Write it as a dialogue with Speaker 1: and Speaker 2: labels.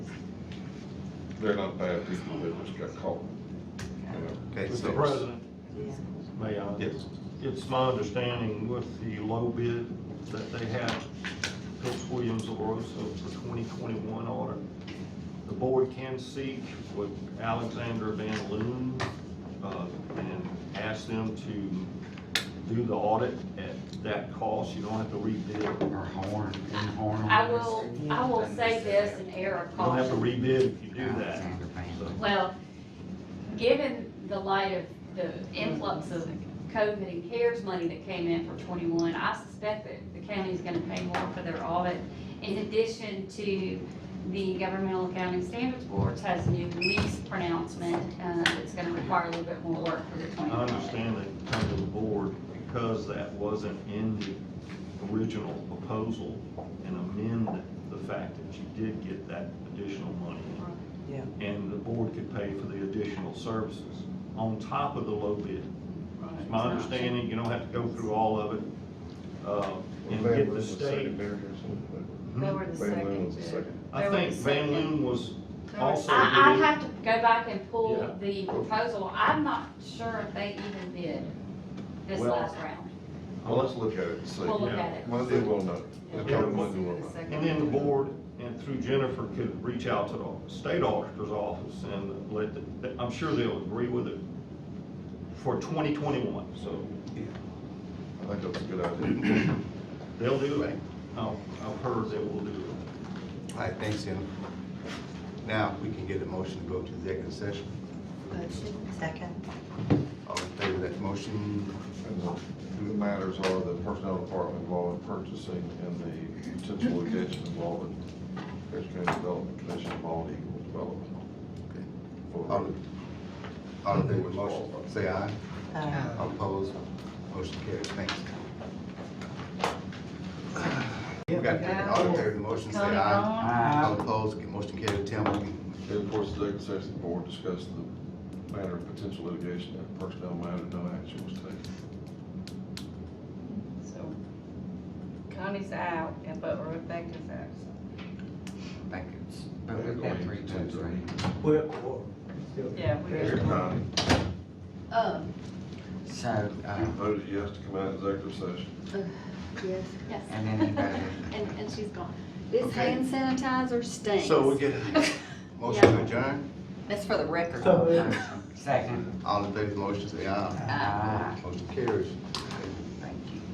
Speaker 1: they're not bad people, they just got caught, you know.
Speaker 2: Okay,
Speaker 3: Mr.
Speaker 2: so,
Speaker 3: President, may I?
Speaker 2: yes,
Speaker 3: It's my understanding with the low bid that they had Phillips Williams LaRosa for twenty twenty-one order. The board can seek with Alexander Van Loon, uh, and ask them to do the audit at that cost. You don't have to rebid. You
Speaker 4: Or horn, in horn.
Speaker 5: I will, I will say this in error of
Speaker 3: don't have to
Speaker 5: caution.
Speaker 3: rebid if you do that.
Speaker 4: Alexander Van
Speaker 3: So-
Speaker 5: Well, given the light of the influx of COVID and CARES money that came in for twenty-one, I suspect that the county is gonna pay more for their audit. In addition to the Governmental Accounting Standards Boards has a new lease pronouncement, uh, that's gonna require a little bit more work for the
Speaker 3: I
Speaker 5: twenty-one.
Speaker 3: understand that it come to the board because that wasn't in the original proposal and amend the fact that you did get that additional money.
Speaker 6: Yeah.
Speaker 3: And the board could pay for the additional services on top of the low bid. It's my understanding, you don't have to go through all of it, uh, and
Speaker 1: Van
Speaker 3: get
Speaker 1: Loon
Speaker 3: the
Speaker 1: was second
Speaker 3: state.
Speaker 1: there, wasn't
Speaker 3: Hmm?
Speaker 5: They were the
Speaker 1: he? Van Loon was the
Speaker 5: second. bid.
Speaker 1: second.
Speaker 3: I think Van Loon was also
Speaker 5: I, I
Speaker 3: bid.
Speaker 5: have to go back and
Speaker 3: Yeah.
Speaker 5: pull the proposal. I'm not sure if they even did this
Speaker 3: Well,
Speaker 5: last round.
Speaker 1: Well, let's look at it and see.
Speaker 5: We'll look
Speaker 3: yeah.
Speaker 5: at it.
Speaker 1: One thing we'll know, the
Speaker 3: Yeah.
Speaker 1: total money we'll know.
Speaker 3: And then the board, and through Jennifer, could reach out to the state auditor's office and let, the- I'm sure they'll agree with it for 2021, so
Speaker 1: I think that's a good idea.
Speaker 3: they'll do that. I've I've heard they will do it.
Speaker 2: all right, thanks, Jennifer. Now, we can get a motion to go to executive session.
Speaker 6: Second.
Speaker 2: All in favor of that motion,
Speaker 1: And the- The matters are the personnel department involved in purchasing and the potential litigation involved in Harris County Development Commission involved Eagle Development.
Speaker 2: all,
Speaker 3: Um,
Speaker 1: For-
Speaker 2: in- all in favor of the motion, say aye.
Speaker 6: Uh,
Speaker 2: All Opposed, motion carries, thanks. We got that, all in favor of the motion, say
Speaker 5: Tony
Speaker 2: aye.
Speaker 5: Bond?
Speaker 4: Aye.
Speaker 2: All opposed, motion carries, Tim, we can
Speaker 1: And of course, the executive session board discussed the matter of potential litigation and personnel matter, no action was taken.
Speaker 7: So Connie's out, and but Rebecca's absent.
Speaker 4: Thank you. But we've got three votes, right?
Speaker 7: Yeah,
Speaker 1: Here,
Speaker 7: we
Speaker 1: Connie,
Speaker 5: Uh,
Speaker 4: So,
Speaker 1: you
Speaker 4: uh,
Speaker 1: voted yes to come out of executive session.
Speaker 8: Yes,
Speaker 5: yes.
Speaker 4: and then you got it.
Speaker 8: and, and she's gone. This
Speaker 2: Okay.
Speaker 8: hand sanitizer stinks.
Speaker 2: So we get a motion to adjourn,
Speaker 7: That's for the record.
Speaker 4: Second. Ah,
Speaker 2: all in favor of the motion, say aye.
Speaker 4: Aye.
Speaker 2: Motion carries.